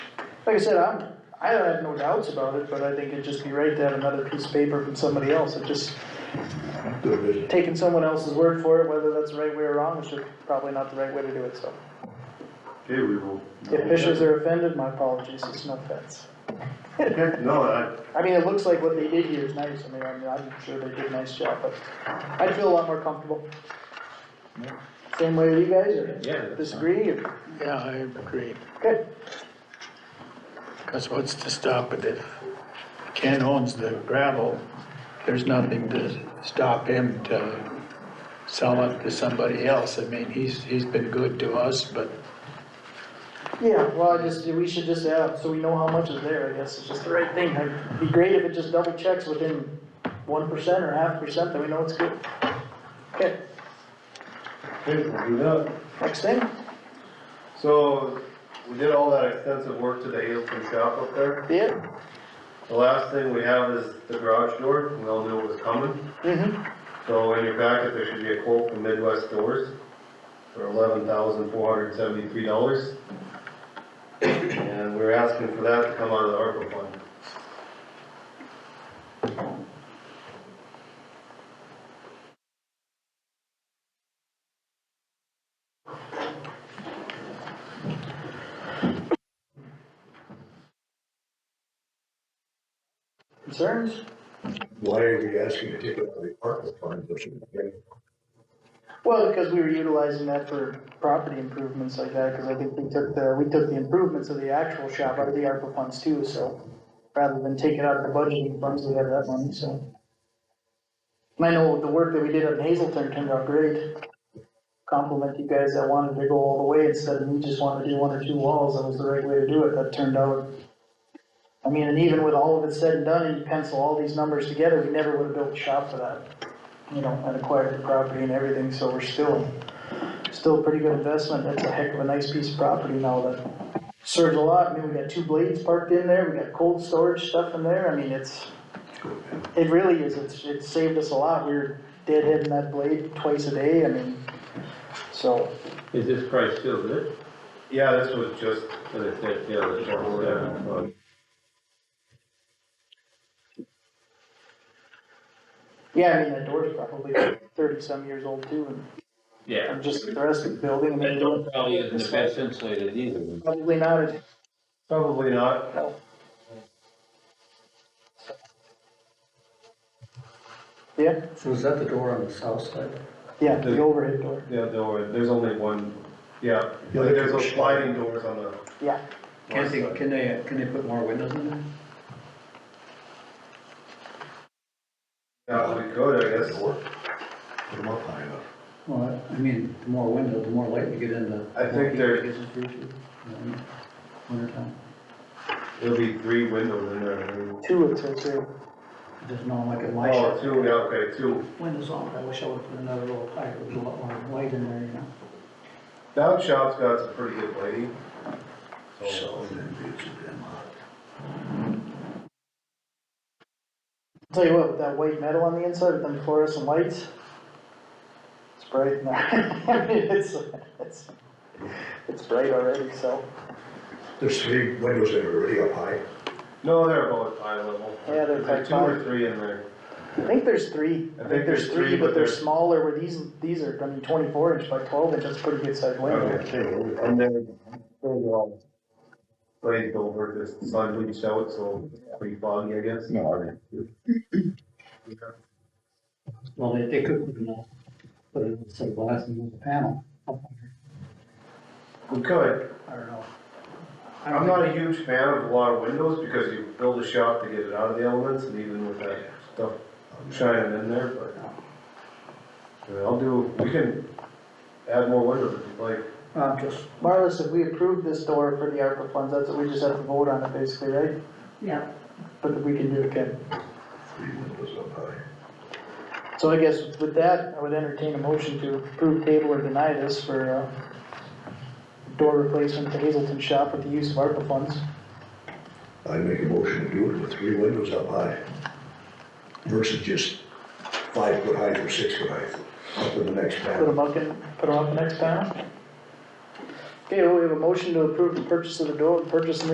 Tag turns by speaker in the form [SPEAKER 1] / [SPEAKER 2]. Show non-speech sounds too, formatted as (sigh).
[SPEAKER 1] like I said, I'm, I have no doubts about it, but I think it'd just be right to have another piece of paper from somebody else, it just, taking someone else's word for it, whether that's the right way or wrong, it's just probably not the right way to do it, so.
[SPEAKER 2] Okay, we will.
[SPEAKER 1] If fishers are offended, my apologies, it's no offense.
[SPEAKER 2] Okay, No, I,
[SPEAKER 1] I mean, it looks like what they did here is nice, I mean, I'm, I'm sure they did a nice job, but I'd feel a lot more comfortable. Same way with you guys, or
[SPEAKER 3] Yeah.
[SPEAKER 1] disagree, or,
[SPEAKER 4] Yeah, I agree,
[SPEAKER 1] okay,
[SPEAKER 4] because what's to stop it if Ken owns the gravel? There's nothing to stop him to sell it to somebody else. I mean, he's, he's been good to us, but
[SPEAKER 1] yeah, well, I just, we should just add, so we know how much is there, I guess, it's just the right thing, it'd be great if it just double checks within one percent or half percent, that we know it's good. Okay,
[SPEAKER 2] okay, we'll do that.
[SPEAKER 1] next thing?
[SPEAKER 2] So, we did all that extensive work to the Hazelton shop up there.
[SPEAKER 1] Yeah.
[SPEAKER 2] The last thing we have is the garage door, we all knew it was coming.
[SPEAKER 1] Mm-hmm.
[SPEAKER 2] So in your packet, there should be a quote from Midwest Doors for eleven thousand four hundred seventy-three dollars. And we're asking for that to come out of the ARPA fund.
[SPEAKER 1] Concerns?
[SPEAKER 5] Why are we asking to take it out of the ARPA fund? which is-
[SPEAKER 1] Well, because we were utilizing that for property improvements like that, because I think we took the, we took the improvements of the actual shop out of the ARPA funds too, so rather than take it out of the budgeting funds, we have that money, so. And I know the work that we did on Hazelton turned out great. Compliment you guys that wanted to go all the way instead of me just wanting to do one or two walls, that was the right way to do it, that turned out. I mean, and even with all of it said and done, and you pencil all these numbers together, we never would have built a shop for that you know, and acquired the property and everything, so we're still, still a pretty good investment, that's a heck of a nice piece of property now that serves a lot, I mean, we got two blades parked in there, we got cold storage stuff in there, I mean, it's, it really is, it's, it's saved us a lot, we were deadheading that blade twice a day, I mean, so,
[SPEAKER 6] Is this price still good?
[SPEAKER 2] Yeah, this was just,
[SPEAKER 6] So they said, yeah, the short term,
[SPEAKER 2] uh,
[SPEAKER 1] yeah, I mean, that door's probably thirty-some years old too, and-
[SPEAKER 6] yeah.
[SPEAKER 1] and just the rest of the building, I
[SPEAKER 6] That
[SPEAKER 1] mean,
[SPEAKER 6] door probably isn't the best insulated either.
[SPEAKER 1] probably not as
[SPEAKER 2] probably not,
[SPEAKER 1] yeah,
[SPEAKER 7] So is that the door on the south side?
[SPEAKER 1] yeah, the overhead door,
[SPEAKER 2] Yeah, there were, there's only one, yeah,
[SPEAKER 5] Yeah,
[SPEAKER 2] there's
[SPEAKER 5] there's-
[SPEAKER 2] those sliding doors on the.
[SPEAKER 1] yeah.
[SPEAKER 7] Can they, can they, can they put more windows in there?
[SPEAKER 2] Yeah, we could, I guess,
[SPEAKER 5] Door. Put them up high enough.
[SPEAKER 7] Well, I mean, the more windows, the more light we get into.
[SPEAKER 2] I think
[SPEAKER 7] more
[SPEAKER 2] there-
[SPEAKER 7] heat gets through to, you know, Winter time,
[SPEAKER 2] there'll be three windows in there.
[SPEAKER 1] Two it says here.
[SPEAKER 7] there's no like a light.
[SPEAKER 2] Oh, two, yeah, okay, two.
[SPEAKER 7] Windows on, I wish I would've put another little pipe, with a lot more light in there, you know?
[SPEAKER 2] Dog shop's got some pretty good lighting. So,
[SPEAKER 5] So then it's a demo.
[SPEAKER 1] Tell you what, with that white metal on the inside, with them fluorescent lights, it's bright in there. (laughs) I mean, it's, it's, it's bright already, so,
[SPEAKER 5] There's three windows that are already up high.
[SPEAKER 2] no, they're both high level.
[SPEAKER 1] Yeah, they're
[SPEAKER 2] There's Two
[SPEAKER 1] high.
[SPEAKER 2] or three in there.
[SPEAKER 1] I think there's three.
[SPEAKER 2] I think there's three,
[SPEAKER 1] But
[SPEAKER 2] but
[SPEAKER 1] they're
[SPEAKER 2] they're-
[SPEAKER 1] smaller, where these, these are, I mean, twenty-four inch by twelve inch, that's a pretty good sized window.
[SPEAKER 2] And they're, they're all glazed over, just sun bleached out, so pretty foggy, I guess.
[SPEAKER 5] No.
[SPEAKER 7] Well, they, they could, you know, put a set of glass in the panel,
[SPEAKER 2] We could,
[SPEAKER 7] I don't know. I don't
[SPEAKER 2] I'm
[SPEAKER 7] think-
[SPEAKER 2] not a huge fan of a lot of windows, because you build a shop to get it out of the elements, and even with that stuff shining in there, but. I mean, I'll do, we can add more windows if you'd like.
[SPEAKER 7] I'm just,
[SPEAKER 1] Um, Marlis, if we approve this door for the ARPA funds, that's what we just have to vote on it basically, right?
[SPEAKER 8] Yeah.
[SPEAKER 1] But we can do it again.
[SPEAKER 5] Three windows up high.
[SPEAKER 1] So I guess with that, I would entertain a motion to approve table or deny this for, uh, door replacement to Hazelton shop with the use of ARPA funds.
[SPEAKER 5] I make a motion to do it with three windows up high versus just five foot high or six foot high up in the next
[SPEAKER 1] Put
[SPEAKER 5] panel.
[SPEAKER 1] them up in, put them up next panel. Okay, well, we have a motion to approve the purchase of the door, purchase and